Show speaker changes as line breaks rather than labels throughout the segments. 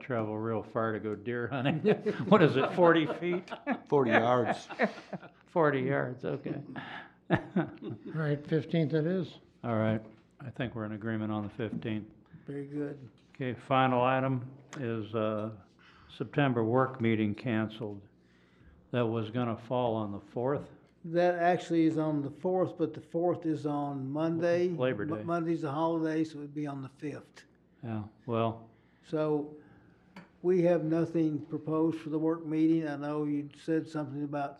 travel real far to go deer hunting. What is it, forty feet?
forty yards.
Forty yards, okay.
All right, fifteenth it is.
All right, I think we're in agreement on the fifteenth.
Very good.
Okay, final item is, uh, September work meeting canceled. That was gonna fall on the fourth.
That actually is on the fourth, but the fourth is on Monday.
Labor
Mo-
Day.
Monday's a holiday, so it'd be on the fifth.
Yeah, well,
So we have nothing proposed for the work meeting. I know you said something about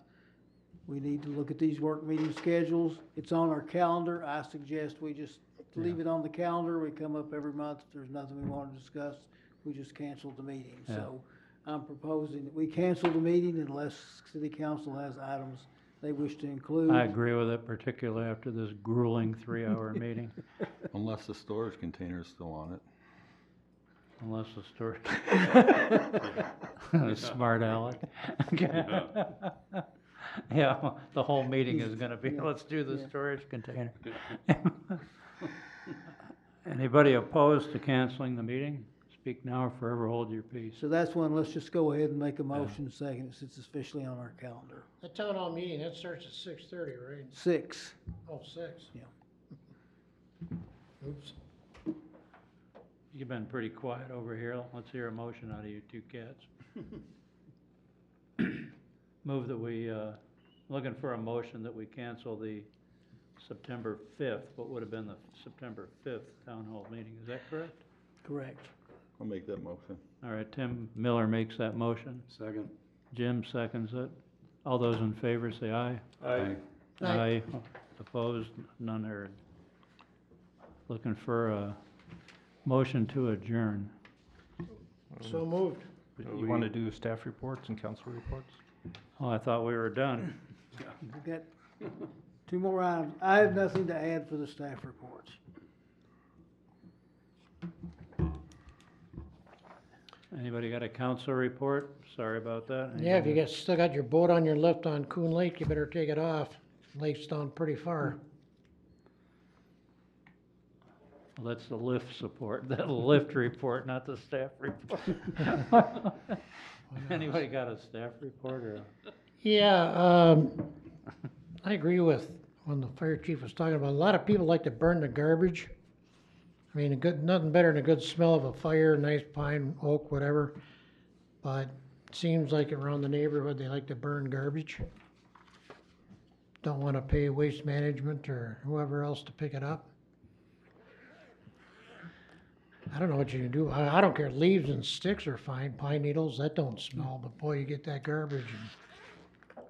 we need to look at these work meeting schedules. It's on our calendar. I suggest we just leave it on the calendar. We come up every month. If there's nothing we want to discuss, we just cancel the meeting.
Yeah.
So I'm proposing that we cancel the meeting unless city council has items they wish to include.
I agree with it, particularly after this grueling three-hour meeting,
Unless the storage container is still on it.
unless the story. Smart Alec. Yeah, the whole meeting is gonna be,
Yeah,
let's do the
yeah.
storage container. Anybody opposed to canceling the meeting? Speak now or forever hold your peace.
So that's one, let's just go ahead and make a motion second, since it's officially on our calendar.
The town hall meeting, that starts at six thirty, right?
Six.
Oh, six?
Yeah.
Oops.
You've been pretty quiet over here. Let's hear a motion out of you two cats. Move that we, uh, looking for a motion that we cancel the September fifth, what would have been the September fifth town hall meeting. Is that correct?
Correct.
I'll make that motion.
All right, Tim Miller makes that motion.
Second.
Jim seconds it. All those in favor say aye.
Aye.
Aye.
Opposed, none heard. Looking for a motion to adjourn.
So moved.
You want to do staff reports and council reports?
Oh, I thought we were done.
We've got two more items. I have nothing to add for the staff reports.
Anybody got a council report? Sorry about that.
Yeah, if you got, still got your boat on your left on Coon Lake, you better take it off. Lake's down pretty far.
Well, That's the lift support, the lift report, not the staff report. Anybody got a staff report or?
Yeah, um, I agree with when the fire chief was talking about, a lot of people like to burn the garbage. I mean, a good, nothing better than a good smell of a fire, nice pine, oak, whatever. But it seems like around the neighborhood, they like to burn garbage. Don't wanna pay waste management or whoever else to pick it up. I don't know what you can do. I, I don't care. Leaves and sticks are fine. Pine needles, that don't smell, but boy, you get that garbage and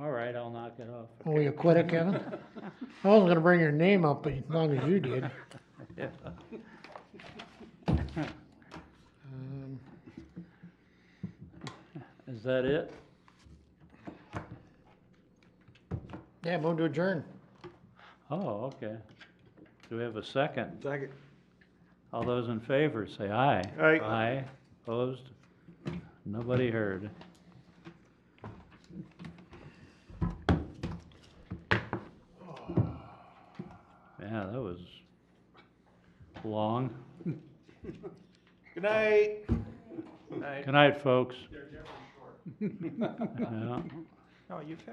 All right, I'll knock it off.
Oh, you quit it, Kevin? I wasn't gonna bring your name up, but as long as you did.
Yeah.
Um,
Is that it?
Yeah, move to adjourn.
Oh, okay. Do we have a second?
Second.
All those in favor, say aye.
Aye.
Aye, opposed? Nobody heard. Yeah, that was long.
Good night.
Good night, folks. Yeah.
No, you've had